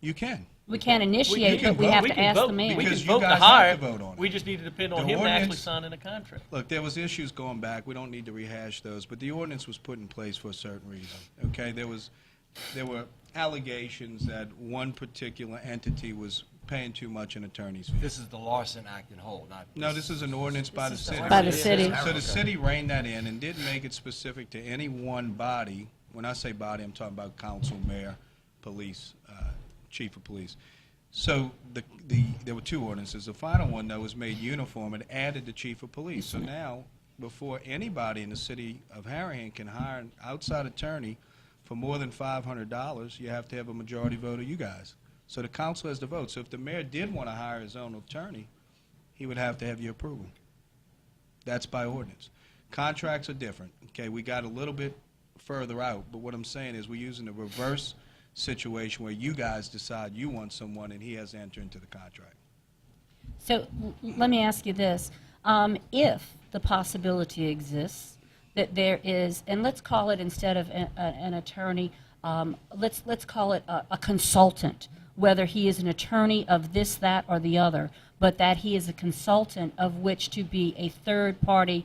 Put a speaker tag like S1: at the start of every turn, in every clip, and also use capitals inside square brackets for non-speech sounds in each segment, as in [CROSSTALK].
S1: You can.
S2: We can't
S1: We- you
S2: initiate,
S1: can
S2: but we
S1: vote.
S2: have
S1: We
S2: to
S3: can
S2: ask
S3: vote-
S2: the
S3: We
S2: mayor.
S3: can
S1: Because you
S3: vote to
S1: guys have
S3: hire.
S1: to vote on it.
S3: We just need to depend on
S1: The
S3: him actually
S1: ordinance-
S3: signing a contract.
S1: Look, there was issues going back. We don't need to rehash those, but the ordinance was put in place for a certain reason. Okay, there was, there were allegations that one particular entity was paying too much in attorney's fees.
S4: This is the Larson Act and Whole, not.
S1: No, this is an ordinance by the
S3: This is the
S1: city.
S2: By the city.
S1: So the city reined that in and didn't make it specific to any one body. When I say body, I'm talking about council, mayor, police, uh, chief of police. So the, the, there were two ordinances. The final one, though, was made uniform. It added the chief of police. So now, before anybody in the city of Harahan can hire an outside attorney for more than five hundred dollars, you have to have a majority vote of you guys. So the council has the vote. So if the mayor did want to hire his own attorney, he would have to have your approval. That's by ordinance. Contracts are different. Okay, we got a little bit further out, but what I'm saying is we're using the reverse situation where you guys decide you want someone and he has to enter into the contract.
S2: So l- let me ask you this. Um, If the possibility exists that there is, and let's call it instead of a- a- an attorney, um, let's, let's call it a a consultant, whether he is an attorney of this, that, or the other, but that he is a consultant of which to be a third-party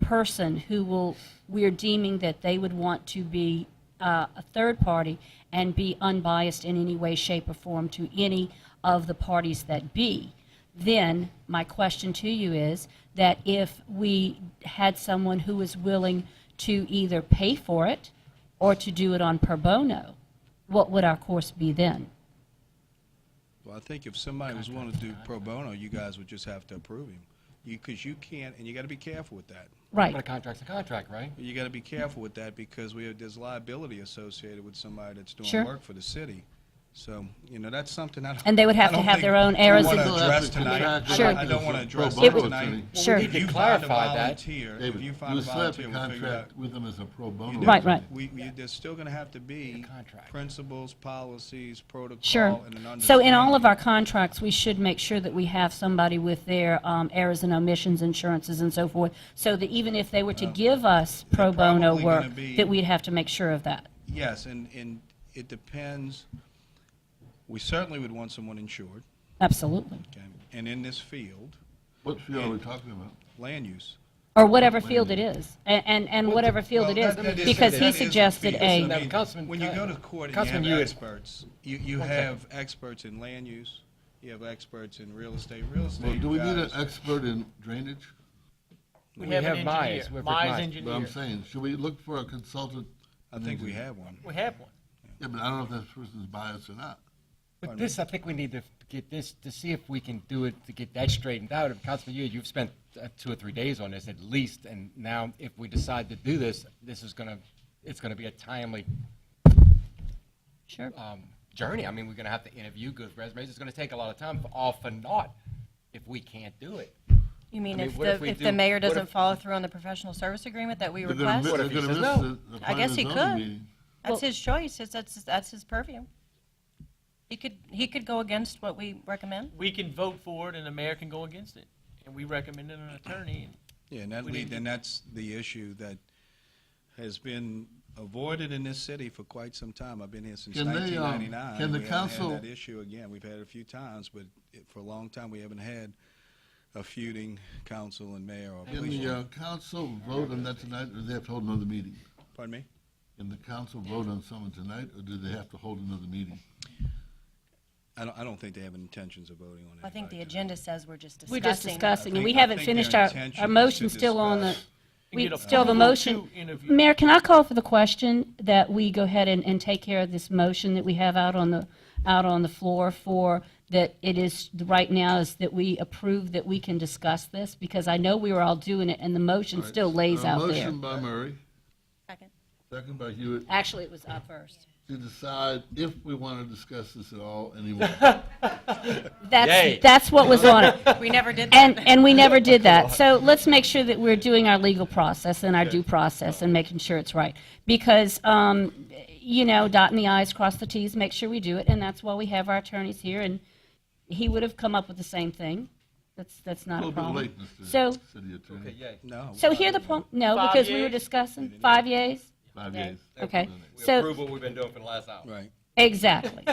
S2: person who will, we're deeming that they would want to be uh, a third party and be unbiased in any way, shape, or form to any of the parties that be. Then, my question to you is that if we had someone who was willing to either pay for it or to do it on pro bono, what would our course be then?
S1: Well, I think if somebody was willing to do pro bono, you guys would just have to approve him. You, because you can't, and you gotta be careful with that.
S2: Right.
S5: But a contract's a contract, right?
S1: You gotta be careful with that because we have, there's liability associated with somebody that's
S2: Sure.
S1: doing work for the city. So, you know, that's something I don't.
S2: And they would have
S1: I don't
S2: to have
S1: think
S2: their own
S1: we
S2: errors
S1: wanna
S2: and-
S1: address
S6: Contract-
S1: tonight.
S2: Sure.
S1: I don't wanna address
S6: Pro
S1: it
S2: bono
S1: tonight.
S2: attorney. Sure.
S5: We need to
S1: If you find a
S5: clarify that.
S1: volunteer, if
S6: David,
S1: you
S6: you
S1: find a
S6: still have
S1: volunteer,
S6: to
S1: we'll figure it out.
S6: contract with them as a pro bono.
S2: Right, right.
S1: We, we, there's still gonna have to be
S5: contract.
S1: principles, policies,
S2: Sure.
S1: protocol, and an understanding.
S2: So in all of our contracts, we should make sure that we have somebody with their um, errors and omissions, insurances and so forth, so that even if they were to give us pro bono
S1: probably gonna
S2: work,
S1: be-
S2: that we'd have to make sure of that.
S1: Yes, and, and it depends, we certainly would want someone insured,
S2: Absolutely.
S1: okay? And in this field,
S6: What field are we talking about?
S1: land use.
S2: Or whatever field it is, a- and, and whatever field it
S1: Well,
S2: is,
S1: that- that
S2: because
S1: that
S2: he
S1: is the
S2: suggested
S1: field.
S2: a.
S1: I mean,
S5: Now, Councilman-
S1: When you go to court and
S5: Councilman,
S1: you have
S5: you-
S1: experts, you, you
S5: Okay.
S1: have experts in land use, you have experts in real estate, real estate
S6: Well, do we need an
S1: guys-
S6: expert in drainage?
S5: We have
S3: an
S5: Myers.
S3: engineer.
S5: We're with
S3: Myers
S5: Myers.
S6: But
S3: engineer.
S6: I'm saying, should we look for a consultant?
S1: I think we have one.
S3: We have one.
S6: Yeah, but I don't know if that person's biased or not.
S5: But this, I think we need to get this, to see if we can do it, to get that straightened out. And Councilman Yu, you've spent uh, two or three days on this at least, and now if we decide to do this, this is gonna, it's gonna be a timely
S2: Sure.
S5: um, journey. I mean, we're gonna have to interview good resumes. It's gonna take a lot of time, for all for naught, if we can't do it.
S7: You mean
S5: mean,
S7: if
S5: what
S7: the,
S5: if we
S7: if
S5: do-
S7: the mayor
S5: what
S7: doesn't
S5: if-
S7: follow through on the professional service agreement that we
S6: They're gonna miss-
S7: request?
S5: What if
S6: they're
S5: he
S6: gonna
S5: says
S6: miss the- the
S7: I guess
S6: planning
S7: he
S6: and
S7: could.
S6: zoning meeting.
S2: Well-
S7: That's his choice, it's, that's, that's his purview. He could, he could go against what we recommend.
S3: We can vote for it and the mayor can go against it. And we recommended an attorney.
S1: Yeah, and that
S3: We
S1: lead,
S3: need-
S1: and that's the issue that has been avoided in this city for quite some time. I've been here since
S6: Can they, um,
S1: 1999.
S6: can the
S1: We haven't had
S6: council-
S1: that issue again. We've had it a few times, but it- for a long time, we haven't had a feuding council and mayor or
S6: Can
S1: police.
S6: the
S1: chief.
S6: uh, council vote on that tonight, or do they have to hold another meeting?
S1: Pardon me?
S6: Can the council vote on someone tonight, or do they have to hold another meeting?
S1: I don't, I don't think they have intentions of voting on it.
S7: I think the agenda says we're just
S2: We're
S7: discussing.
S2: just discussing, and we
S1: I think- I
S2: haven't
S1: think
S2: finished
S1: their
S2: our,
S1: intention
S2: our
S1: is to
S2: motion's still on the,
S1: discuss.
S3: And
S2: we
S3: get a
S2: still have a
S3: formal
S2: motion.
S3: two interview.
S2: Mayor, can I call for the question that we go ahead and, and take care of this motion that we have out on the, out on the floor for, that it is, right now is that we approve that we can discuss this? Because I know we were all doing it, and the motion still lays
S1: Uh,
S6: A
S2: out there.
S6: Motion by Murray,
S7: Second.
S6: second by Hewitt,
S2: Actually, it was up first.
S6: to decide if we want to discuss this at all anymore.
S2: That's,
S5: Yay.
S2: that's what was on [LAUGHS] it.
S7: We never did that.
S2: And, and we never did
S6: [LAUGHS]
S2: that. So let's make sure that we're doing our legal process and our due process and making sure it's right. Because, um, you know, dotting the i's, cross the t's, make sure we do it, and that's why we have our attorneys here, and he would have come up with the same thing. That's, that's
S6: A
S2: not a
S6: little bit
S2: problem.
S6: late, Mr.
S2: So,
S6: City Attorney.
S1: No.
S2: so here the point, no,
S3: Five
S2: because we were
S3: yeas?
S2: discussing, five years.
S6: Five years.
S2: Okay,
S5: We
S2: so,
S5: approve what we've been doing for the last hour.
S1: Right.
S2: exactly.